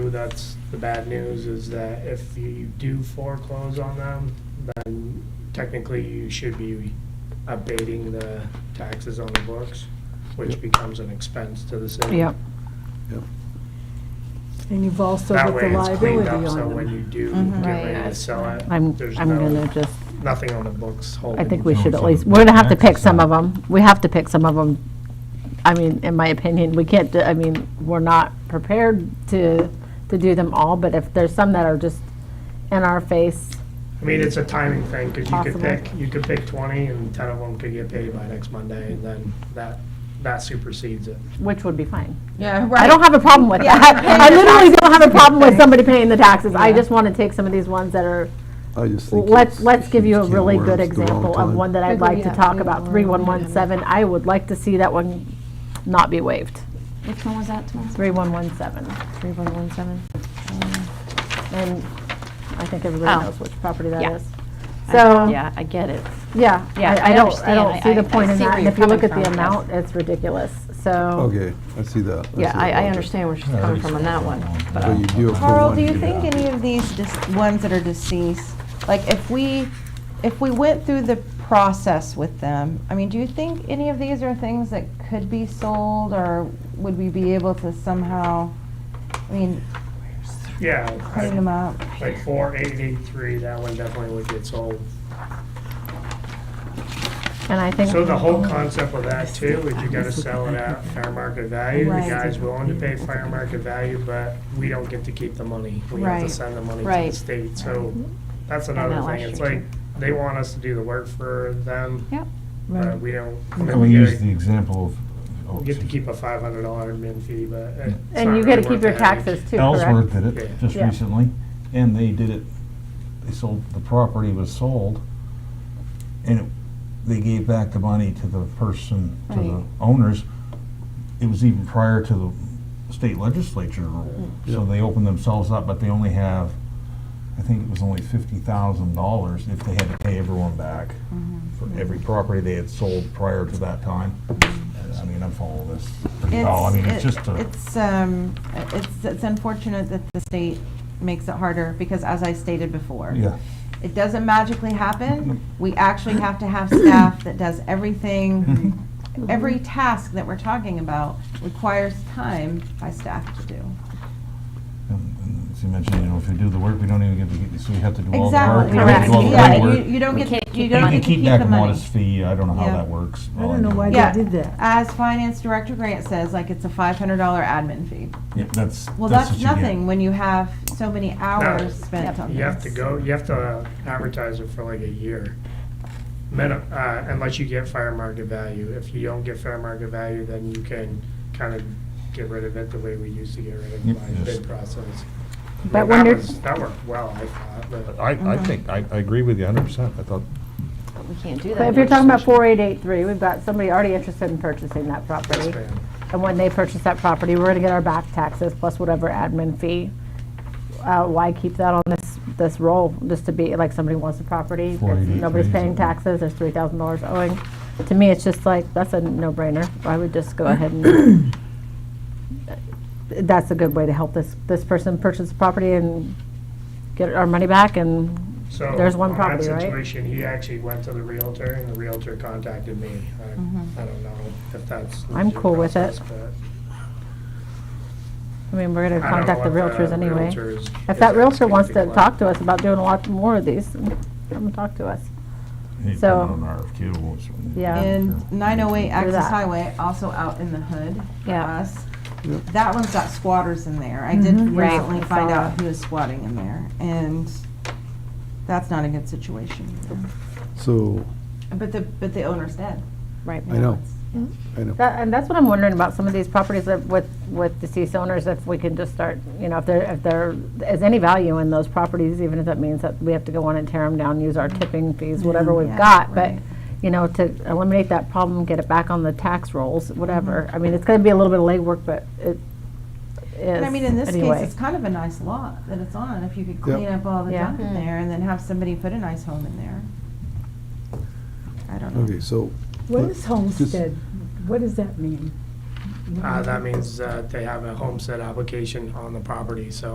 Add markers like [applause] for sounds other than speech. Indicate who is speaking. Speaker 1: that's the bad news, is that if you do foreclose on them, then technically you should be abating the taxes on the books, which
Speaker 2: Yep.
Speaker 1: becomes an expense to the city.
Speaker 3: Yep.
Speaker 2: Yep.
Speaker 3: And you've also
Speaker 1: That
Speaker 3: got the
Speaker 1: way it's cleaned
Speaker 3: liability
Speaker 1: up, so
Speaker 3: on
Speaker 1: when you
Speaker 3: them. Mm-hmm.
Speaker 1: do
Speaker 4: Mhm.
Speaker 1: get
Speaker 4: Right.
Speaker 1: ready to sell it,
Speaker 3: I'm,
Speaker 1: there's
Speaker 3: I'm gonna
Speaker 1: no,
Speaker 3: just,
Speaker 1: nothing on the books holding.
Speaker 3: I think
Speaker 1: you
Speaker 3: we
Speaker 1: down.
Speaker 3: should at
Speaker 2: also
Speaker 3: least,
Speaker 2: the
Speaker 3: we're gonna have to pick
Speaker 2: taxes
Speaker 3: some
Speaker 2: on
Speaker 3: of them. We have to pick some of them. I mean, in my opinion, we can't, do- I mean, we're not prepared to, to do them all, but if there's some that are just in our face,
Speaker 1: I mean, it's a timing thing, because you could
Speaker 3: Possible.
Speaker 1: pick, you could pick twenty, and ten of them could get paid by next Monday, and then that, that supersedes it.
Speaker 3: which would be fine.
Speaker 4: Yeah, right.
Speaker 3: I don't have a problem with
Speaker 4: Yeah.
Speaker 3: that. I literally don't have a problem
Speaker 4: [laughs]
Speaker 3: with somebody paying the taxes. I
Speaker 4: Yeah.
Speaker 3: just wanna take some of these ones that are
Speaker 2: I just think
Speaker 3: Let's,
Speaker 2: it's-
Speaker 3: let's give you a
Speaker 2: it's
Speaker 3: really
Speaker 2: worms
Speaker 3: good
Speaker 2: the wrong
Speaker 3: example of
Speaker 2: time.
Speaker 3: one that I'd
Speaker 4: Agree,
Speaker 3: like to
Speaker 4: yeah,
Speaker 3: talk
Speaker 4: we
Speaker 3: about,
Speaker 4: will.
Speaker 3: 3117. I would like to see that one not be waived,
Speaker 4: Which one was that, Thomas?
Speaker 3: 3117.
Speaker 4: Three one one seven.
Speaker 3: And I think
Speaker 4: Oh.
Speaker 3: everybody knows which property that
Speaker 4: Yeah.
Speaker 3: is. So,
Speaker 4: Yeah, I get it.
Speaker 3: yeah, I I
Speaker 4: Yeah, I
Speaker 3: don't, I don't
Speaker 4: understand.
Speaker 3: see
Speaker 4: I-
Speaker 3: the
Speaker 4: I
Speaker 3: point in
Speaker 4: see
Speaker 3: that.
Speaker 4: where
Speaker 3: And
Speaker 4: you're
Speaker 3: if you look
Speaker 4: coming
Speaker 3: at the
Speaker 4: from, yes.
Speaker 3: amount, it's ridiculous, so.
Speaker 2: Okay, I see that. see
Speaker 4: Yeah,
Speaker 2: that
Speaker 4: I, I
Speaker 2: logic.
Speaker 4: understand where she's coming from on that one. but, uh,
Speaker 2: But you do it for
Speaker 5: Carl,
Speaker 2: one
Speaker 5: do you
Speaker 2: year.
Speaker 5: think any of these dis- ones that are deceased, like if we, if we went through the process with them, I mean, do you think any of these are things that could be sold or would we be able to somehow, I mean,
Speaker 1: Yeah,
Speaker 5: clean them
Speaker 1: I-
Speaker 5: up?
Speaker 1: like four eight eight three, that one definitely would get sold.
Speaker 3: And I think,
Speaker 1: So the whole concept of that too, is you gotta sell it at fair market value, the
Speaker 5: Right.
Speaker 1: guy's willing to pay fair market value, but we don't get to keep the money. We have to
Speaker 5: Right.
Speaker 1: send the money to
Speaker 4: Right.
Speaker 1: the state, so that's
Speaker 4: that
Speaker 1: another
Speaker 4: last
Speaker 1: thing, it's
Speaker 4: year,
Speaker 1: like, they want us to do the work for them,
Speaker 4: Yep.
Speaker 1: but we don't.
Speaker 6: Can we use the example of? oh,
Speaker 1: You get to keep a five hundred dollar admin fee, but. it's
Speaker 3: and
Speaker 1: not
Speaker 3: you gotta
Speaker 1: really
Speaker 3: keep
Speaker 1: worth
Speaker 3: your
Speaker 1: the headache.
Speaker 3: taxes too,
Speaker 6: Ellsworth
Speaker 3: correct?
Speaker 6: did
Speaker 1: Yeah.
Speaker 6: it just
Speaker 3: Yeah.
Speaker 6: recently, and they did it, they sold, the property was sold, and it- they gave back the money to the person, to the
Speaker 4: Right.
Speaker 6: owners. It was even prior to the state legislature rule, so they opened themselves up, but they only have, I think it was only fifty thousand dollars if they had to pay everyone back for every property they had sold prior to that time. I mean, I'm following this pretty well, I mean, it's
Speaker 5: it-
Speaker 6: just a.
Speaker 5: It's, um, it's, it's unfortunate that the state makes it harder because as I stated before.
Speaker 6: Yeah.
Speaker 5: It doesn't magically happen. We actually have to have staff that does everything. Every task that we're talking about requires time by staff to do.
Speaker 6: And- and As you mentioned, you know, if we do the work, we don't even get to, get- so we have to do all the work.
Speaker 5: Exactly.
Speaker 6: we have to do all the
Speaker 5: Yeah,
Speaker 6: legwork.
Speaker 5: you, you don't
Speaker 4: We
Speaker 5: get,
Speaker 4: can't
Speaker 5: you
Speaker 4: keep
Speaker 5: don't
Speaker 6: You
Speaker 5: get to keep
Speaker 6: back
Speaker 5: the
Speaker 6: a modest
Speaker 5: money.
Speaker 6: fee, I don't know how
Speaker 5: Yeah.
Speaker 6: that works. uh,
Speaker 2: I
Speaker 6: All
Speaker 2: don't know why
Speaker 6: is-
Speaker 2: they
Speaker 5: Yeah.
Speaker 2: did that.
Speaker 5: As Finance Director Grant says, like, it's a five hundred dollar admin fee.
Speaker 6: Yeah, that's,
Speaker 5: Well,
Speaker 6: that's what
Speaker 5: that's
Speaker 6: you get.
Speaker 5: nothing when you have so many hours spent on this.
Speaker 1: You have to go, you have to advertise it for like a year. Minimum, uh, unless you get fair market value. If you don't get fair market value, then you can kind of get rid of it the way we used to get rid of
Speaker 6: Yep,
Speaker 1: my
Speaker 6: yes.
Speaker 1: bid process. I
Speaker 3: But
Speaker 1: mean,
Speaker 3: when
Speaker 1: that
Speaker 3: you're-
Speaker 1: was- That worked well, I thought, but.
Speaker 7: I, I
Speaker 5: Uh-huh.
Speaker 7: think, I, I agree with you hundred percent. I thought,
Speaker 4: But we can't do that.
Speaker 3: But if you're talking about 4883, we've got somebody already interested in purchasing that property.
Speaker 1: Yes, ma'am.
Speaker 3: And when they purchase that property, we're gonna get our back taxes plus whatever admin fee. Uh, why keep that on this, this roll, just to be, like, somebody wants the property,
Speaker 6: Four eighty-three
Speaker 3: nobody's
Speaker 6: is
Speaker 3: paying
Speaker 6: it?
Speaker 3: taxes, there's three thousand dollars owing. To me, it's just like, that's a no-brainer, I would just go ahead and, [coughs] that's a good way to help this, this person purchase the property and get our money back, and
Speaker 1: So,
Speaker 3: there's one
Speaker 1: on that
Speaker 3: property, right?
Speaker 1: Situation, he actually went to the Realtor and the Realtor contacted me. I, I don't know if that's. the
Speaker 3: Mm-hmm. I'm
Speaker 1: due
Speaker 3: cool with it.
Speaker 1: process, but
Speaker 3: I mean, we're gonna
Speaker 1: I don't know
Speaker 3: contact the
Speaker 1: what
Speaker 3: realtors anyway.
Speaker 1: realtor's-
Speaker 3: If that realtor
Speaker 1: asking
Speaker 3: wants to
Speaker 1: people.
Speaker 3: talk to us about doing a lot more of these, come and talk to us.
Speaker 6: You put it
Speaker 3: So-
Speaker 6: on RFQ, we'll-
Speaker 3: Yeah.
Speaker 5: And nine oh eight Access
Speaker 3: that.
Speaker 5: Highway, also out in the hood for
Speaker 4: Yeah.
Speaker 1: Uh-huh.
Speaker 5: us. That one's got squatters in there. I did
Speaker 3: Mm-hmm. Right,
Speaker 5: recently
Speaker 3: I
Speaker 5: find
Speaker 3: saw
Speaker 5: out
Speaker 3: that.
Speaker 5: who is squatting in there, and that's not a good situation.
Speaker 3: Mm-hmm.
Speaker 5: either.
Speaker 2: So,
Speaker 5: But the, but the owner's dead.
Speaker 4: Right.
Speaker 2: I know, I know.
Speaker 3: That, and that's what I'm wondering about some of these properties that with, with deceased owners, if we can just start, you know, if there, if there is any value in those properties, even if that means that we have to go on and tear them down, use our tipping fees, whatever we've
Speaker 5: Yeah,
Speaker 3: got, but,
Speaker 5: right.
Speaker 3: you know, to eliminate that problem, get it back on the tax rolls, whatever.
Speaker 5: Mm-hmm.
Speaker 3: I mean, it's gonna be a little bit of legwork, but it is,
Speaker 5: And I mean, in this case,
Speaker 3: anyway.
Speaker 5: it's kind of a nice lot that it's on, if you could
Speaker 2: Yep.
Speaker 5: clean up all the
Speaker 3: Yeah. Hmm.
Speaker 5: junk in there and then have somebody put a nice home in there. I don't know.
Speaker 2: Okay, so.
Speaker 8: What
Speaker 2: let-
Speaker 8: is
Speaker 2: just-
Speaker 8: homestead? What does that mean?
Speaker 3: Mm-hmm.
Speaker 1: Uh, that means that they have a homestead application on the property, so